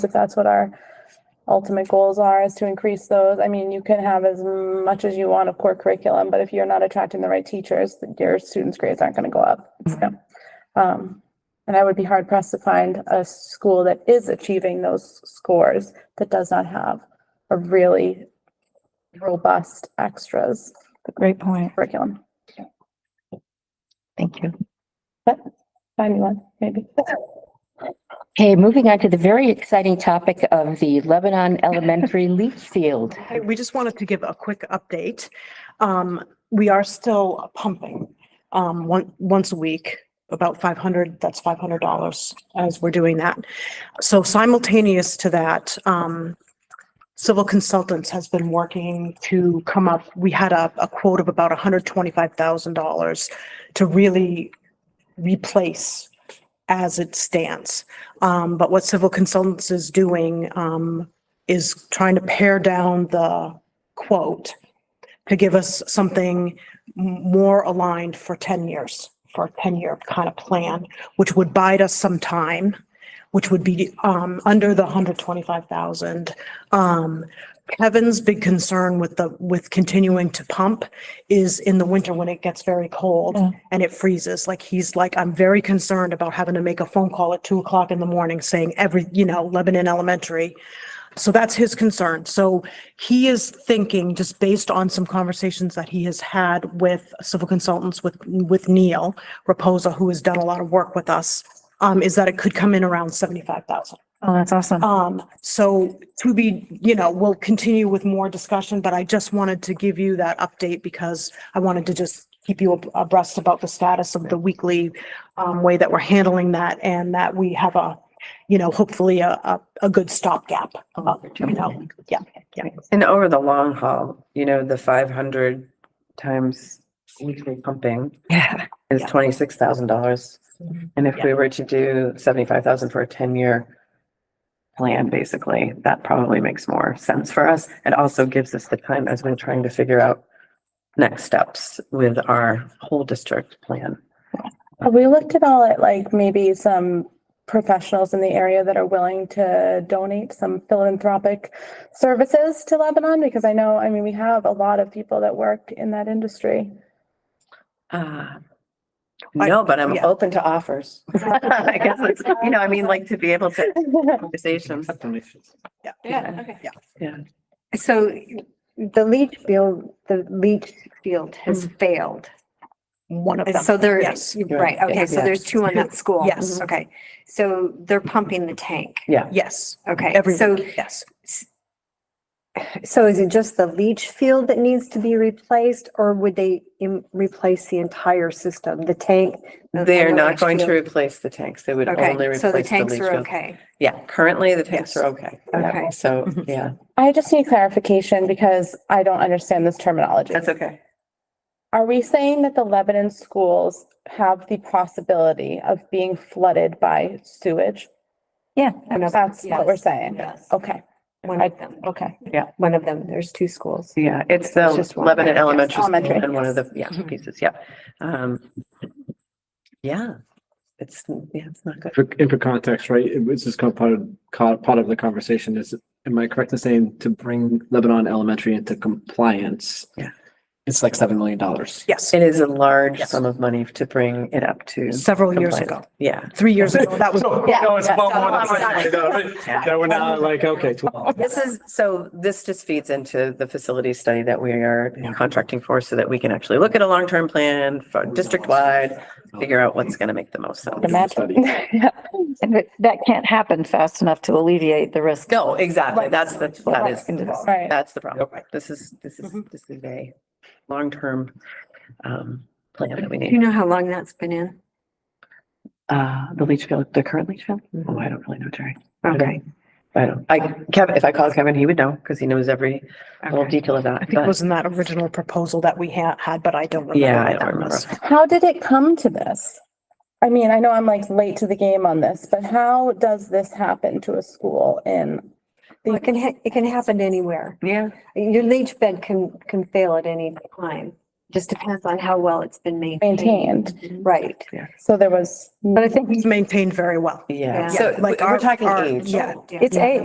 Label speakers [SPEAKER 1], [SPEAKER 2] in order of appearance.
[SPEAKER 1] if that's what our ultimate goals are, is to increase those. I mean, you can have as much as you want of core curriculum, but if you're not attracting the right teachers, your students' grades aren't going to go up. So, um, and I would be hard pressed to find a school that is achieving those scores that does not have a really robust extras
[SPEAKER 2] Great point.
[SPEAKER 1] curriculum.
[SPEAKER 2] Thank you.
[SPEAKER 1] Find me one, maybe.
[SPEAKER 2] Okay, moving on to the very exciting topic of the Lebanon Elementary leach field.
[SPEAKER 3] Okay, we just wanted to give a quick update. Um, we are still pumping, um, one, once a week, about five hundred, that's five hundred dollars as we're doing that. So simultaneous to that, um, Civil Consultants has been working to come up, we had a, a quote of about hundred twenty-five thousand dollars to really replace as it stands. Um, but what Civil Consultants is doing, um, is trying to pare down the quote to give us something m- more aligned for 10 years, for a 10-year kind of plan, which would bide us some time, which would be um, under the 125,000. Um, Kevin's big concern with the, with continuing to pump is in the winter when it gets very cold
[SPEAKER 2] Yeah.
[SPEAKER 3] and it freezes. Like, he's like, I'm very concerned about having to make a phone call at 2 o'clock in the morning saying every, you know, Lebanon Elementary, so that's his concern. So he is thinking, just based on some conversations that he has had with civil consultants, with, with Neil Reposa, who has done a lot of work with us, um, is that it could come in around seventy-five thousand.
[SPEAKER 2] Oh, that's awesome.
[SPEAKER 3] Um, so to be, you know, we'll continue with more discussion, but I just wanted to give you that update because I wanted to just keep you ab- abreast about the status of the weekly um, way that we're handling that and that we have a, you know, hopefully a, a, a good stopgap, uh, you know, yeah, yeah.
[SPEAKER 4] And over the long haul, you know, the five hundred times weekly pumping
[SPEAKER 2] Yeah.
[SPEAKER 4] is
[SPEAKER 3] Yeah.
[SPEAKER 4] twenty-six thousand dollars. And if we were to do seventy-five thousand for a ten-year plan, basically, that probably makes more sense for us. It also gives us the time as we're trying to figure out next steps with our whole district plan.
[SPEAKER 1] Have we looked at all at like maybe some professionals in the area that are willing to donate some philanthropic services to Lebanon? Because I know, I mean, we have a lot of people that work in that industry.
[SPEAKER 4] Uh,
[SPEAKER 3] I-
[SPEAKER 4] No, but I'm
[SPEAKER 3] yeah.
[SPEAKER 4] open to offers. I guess, it's- you know, I mean, like to be able to conversations.
[SPEAKER 5] Yeah, okay.
[SPEAKER 6] So the leach field, the leach field has failed.
[SPEAKER 3] One of them.
[SPEAKER 6] So
[SPEAKER 3] yes.
[SPEAKER 6] there's, right, okay, so
[SPEAKER 4] Yeah.
[SPEAKER 6] there's two on that school. Mm-hmm.
[SPEAKER 3] Yes.
[SPEAKER 6] Okay, so they're pumping the tank.
[SPEAKER 3] Yes,
[SPEAKER 6] Okay,
[SPEAKER 3] every
[SPEAKER 6] so,
[SPEAKER 3] week, yes.
[SPEAKER 6] so is it just the leach field that needs to be replaced or would they im- replace the entire system, the tank? the-
[SPEAKER 4] They're
[SPEAKER 6] and the
[SPEAKER 4] not
[SPEAKER 6] leach
[SPEAKER 4] going to
[SPEAKER 6] field?
[SPEAKER 4] replace the tanks. They would only
[SPEAKER 6] Okay,
[SPEAKER 4] replace
[SPEAKER 6] so
[SPEAKER 4] the
[SPEAKER 6] the
[SPEAKER 4] leach
[SPEAKER 6] tanks are
[SPEAKER 4] field.
[SPEAKER 6] okay.
[SPEAKER 4] Yeah, currently the tanks are okay. Yeah,
[SPEAKER 6] Okay.
[SPEAKER 4] So,
[SPEAKER 3] Mhm.
[SPEAKER 4] yeah,
[SPEAKER 1] I just need clarification because I don't understand this terminology.
[SPEAKER 4] that's okay.
[SPEAKER 1] Are we saying that the Lebanon schools have the possibility of being flooded by sewage?
[SPEAKER 6] Yeah.
[SPEAKER 1] That's what we're saying.
[SPEAKER 6] Yes.
[SPEAKER 1] Okay,
[SPEAKER 6] One of them,
[SPEAKER 1] okay.
[SPEAKER 6] one of them, there's two schools.
[SPEAKER 4] Yeah, it's the
[SPEAKER 6] It's just one
[SPEAKER 4] Lebanon
[SPEAKER 6] tank, yes.
[SPEAKER 4] Elementary School
[SPEAKER 1] Elementary,
[SPEAKER 4] and one of
[SPEAKER 6] yes.
[SPEAKER 4] the, yeah, pieces, yeah. Um, Yeah, it's, yeah, it's not good.
[SPEAKER 7] For, and for context, right, it was just kind of part of, co- part of the conversation is, am I correct in saying to bring Lebanon Elementary into compliance?
[SPEAKER 4] Yeah.
[SPEAKER 7] It's like seven million dollars.
[SPEAKER 3] Yes,
[SPEAKER 4] It is a large
[SPEAKER 3] Yes.
[SPEAKER 4] sum of money to bring it up to.
[SPEAKER 3] several years
[SPEAKER 4] compliance.
[SPEAKER 3] ago,
[SPEAKER 4] Yeah.
[SPEAKER 3] three years ago, that was.
[SPEAKER 7] No, it's well
[SPEAKER 4] more than Yeah.
[SPEAKER 7] That we're not like, okay, twelve.
[SPEAKER 4] This is, so this just feeds into the facility study that we are
[SPEAKER 7] Yeah.
[SPEAKER 4] contracting for so that we can actually look at a long-term plan for district-wide, figure out what's going to make the most sense.
[SPEAKER 1] The magic. Yeah.
[SPEAKER 2] And that- that can't happen fast enough to alleviate the risk.
[SPEAKER 4] No, exactly. That's the, that is,
[SPEAKER 2] Right.
[SPEAKER 1] Right.
[SPEAKER 4] that's the problem. This is, this is, this is a long-term um, plan that we
[SPEAKER 6] Do you
[SPEAKER 4] need.
[SPEAKER 6] know how long that's been in?
[SPEAKER 4] Uh, the leach field, the current leach field? Oh, I don't really know, Jerry. I don't-
[SPEAKER 6] Okay.
[SPEAKER 4] I don't, I, Kevin, if I called Kevin, he would know because he knows every little
[SPEAKER 6] okay.
[SPEAKER 4] detail of that.
[SPEAKER 3] I think it
[SPEAKER 4] but-
[SPEAKER 3] was in that original proposal that we had, had, but I don't remember.
[SPEAKER 4] Yeah, I
[SPEAKER 3] what
[SPEAKER 4] don't
[SPEAKER 3] that
[SPEAKER 4] remember.
[SPEAKER 3] was.
[SPEAKER 1] How did it come to this? I mean, I know I'm like late to the game on this, but how does this happen to a school in?
[SPEAKER 6] Well, It can, ha- it can happen anywhere.
[SPEAKER 4] Yeah.
[SPEAKER 6] Your leach bed can, can fail at any time. Just depends on how well it's been maintained.
[SPEAKER 1] maintained.
[SPEAKER 6] Right.
[SPEAKER 1] So there was
[SPEAKER 6] But I think
[SPEAKER 3] It's maintained very well.
[SPEAKER 6] Yeah.
[SPEAKER 4] Yeah, so
[SPEAKER 3] Like
[SPEAKER 4] we're
[SPEAKER 3] our-
[SPEAKER 4] talking
[SPEAKER 3] our-
[SPEAKER 4] age.
[SPEAKER 3] Yeah,
[SPEAKER 6] it's a,